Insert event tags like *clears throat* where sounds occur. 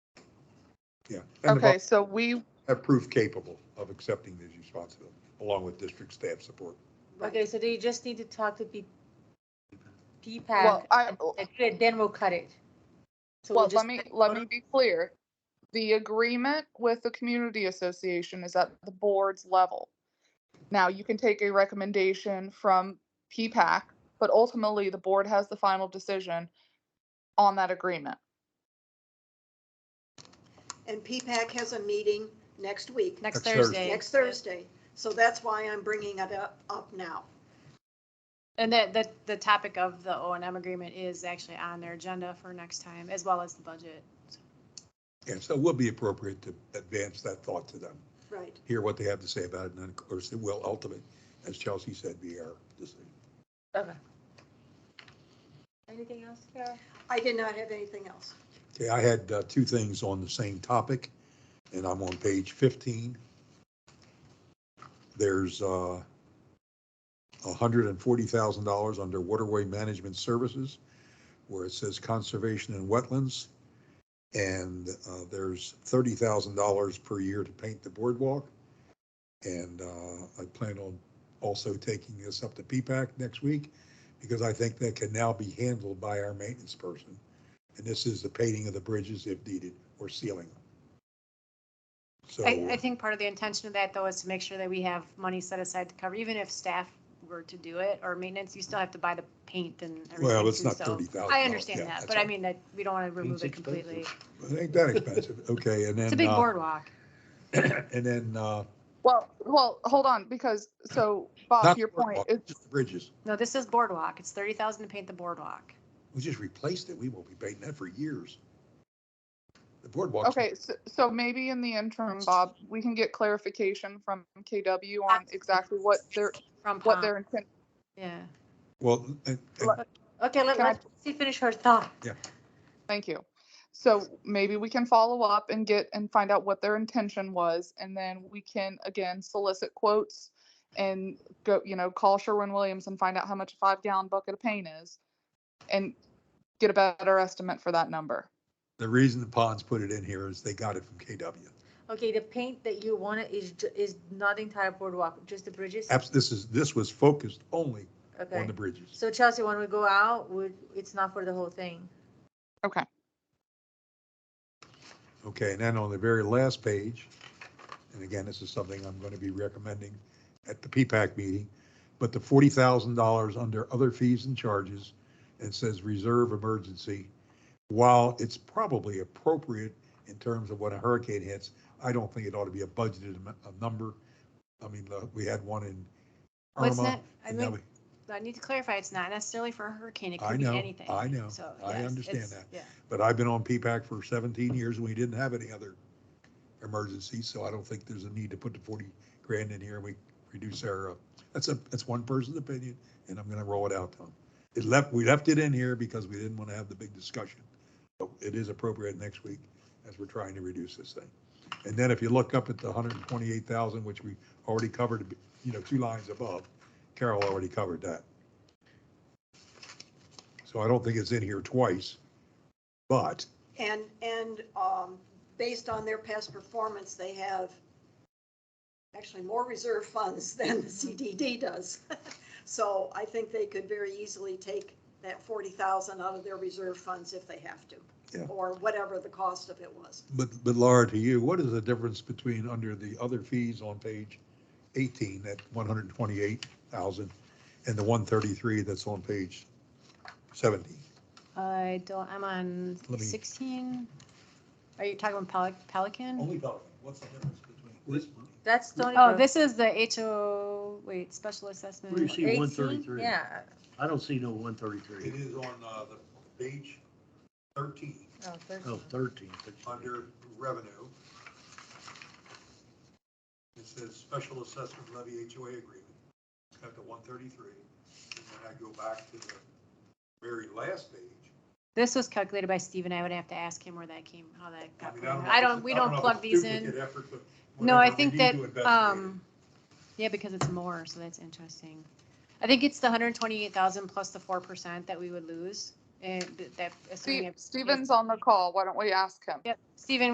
yeah. And Okay, about so we, have proof capable of accepting these responsibilities, along with district staff support. Okay, so they just need to talk to P, well, P-PAC, I, and good, then we'll cut it. So we'll well, just let me, cut it let out. me be clear. The agreement with the community association is at the board's level. Now, you can take a recommendation from PPAC, but ultimately the board has the final decision on that agreement. And PPAC has a meeting next week, Next Next Thursday. Thursday. next Thursday. So that's why I'm bringing it up, up now. And that, that, the topic of the O and M agreement is actually on their agenda for next time, as well as the budget. And so it will be appropriate to advance that thought to them, Right. hear what they have to say about it, and then of course, it will ultimately, as Chelsea said, be our decision. Okay. Anything else, Carol? I did not have anything else. Okay, I had uh, two things on the same topic, and I'm on page 15. There's uh, $140,000 under waterway management services, where it says conservation and wetlands. And uh, there's $30,000 per year to paint the boardwalk. And uh, I plan on also taking this up to P-PAC next week, because I think that can now be handled by our maintenance person. And this is the painting of the bridges if needed, or sealing them. So, I, I think part of the intention of that, though, is to make sure that we have money set aside to cover, even if staff were to do it, or maintenance, you still have to buy the paint and everything. well, it's too, not so- $30,000. I yeah, understand that, that's but I all. mean, that, we don't want to remove it Paint's expensive. completely. It Ain't that *laughs* expensive, okay, and then. It's a big uh, boardwalk. *clears throat* And then, uh, Well, well, hold on, because, so Bob, not to your the point, boardwalk, it's, Just the bridges, No, this is boardwalk. It's thirty thousand to paint the boardwalk. we just replaced it, we won't be painting that for years. The boardwalk. Okay, so, so maybe in the interim, Bob, we can get clarification from KW on Absolutely. Um, exactly what their, From what Palm, their intent. yeah. Well, and- and Okay, let, Can I- let Chelsea finish her thought. Thank you. So maybe we can follow up and get and find out what their intention was, and then we can again solicit quotes and go, you know, call Sherwin-Williams and find out how much a five-gallon bucket of paint is and get a better estimate for that number. the reason the ponds put it in here is they got it from KW. Okay, the paint that you wanted is, ju- is not the entire boardwalk, just the bridges? Abs, this is, this was focused only on Okay. the bridges. So Chelsea, when we go out, would, it's not for the whole thing. Okay. Okay, and then on the very last page, and again, this is something I'm going to be recommending at the P-PAC meeting, but the forty thousand dollars under other fees and charges, and says reserve emergency. While it's probably appropriate in terms of when a hurricane hits, I don't think it ought to be a budgeted am- a number. I mean, uh, we had one in Well, it's Irma. not- I and now mean, we- I need to clarify, it's not necessarily for a hurricane. It I could be know, anything. I know. So, I yes, understand it's- that. Yeah. But I've been on P-PAC for seventeen years and we didn't have any other emergency, so I don't think there's a need to put the forty grand in here and we reduce our, uh, that's a, that's one person's opinion and I'm gonna roll it out to them. It left, we left it in here because we didn't want to have the big discussion. But it is appropriate next week as we're trying to reduce this thing. And then if you look up at the hundred and twenty-eight thousand, which we already covered, you know, two lines above, Carol already covered that. So I don't think it's in here twice, but And, and um, based on their past performance, they have actually more reserve funds *laughs* than the CDD does. *laughs* So I think they could very easily take that 40,000 out of their reserve funds if they have Yeah. to, or whatever the cost of it was. But, but Laura, to you, what is the difference between under the other fees on page 18, that 128,000, and the 133 that's on page 17? I don't, I'm on Let me- sixteen. Are you talking about Pelic- Pelican? Pelican, what's the difference between this money? That's Stony Oh, Brook. this is the HO, wait, special assessment. Where you see 18? 133. Yeah, I don't see no one thirty-three. is on uh, the page 13, oh, Oh, 13. thirteen. revenue. It says special assessment levy HOA agreement, at the 133. And then I go back to the very last page, This was calculated by Steve and I would have to ask him where that came, how that got. mean, put in. know I if don't, it's- we I don't know if plug it's these in. duplicate effort, but No, I whatever, we think need that, to investigate um, yeah, because it's more, so that's interesting. I think it's the hundred and twenty-eight thousand plus the four percent that we would lose and that. assuming Steve, it's- Steven's on the call. Why don't we ask him? Yep, Steven,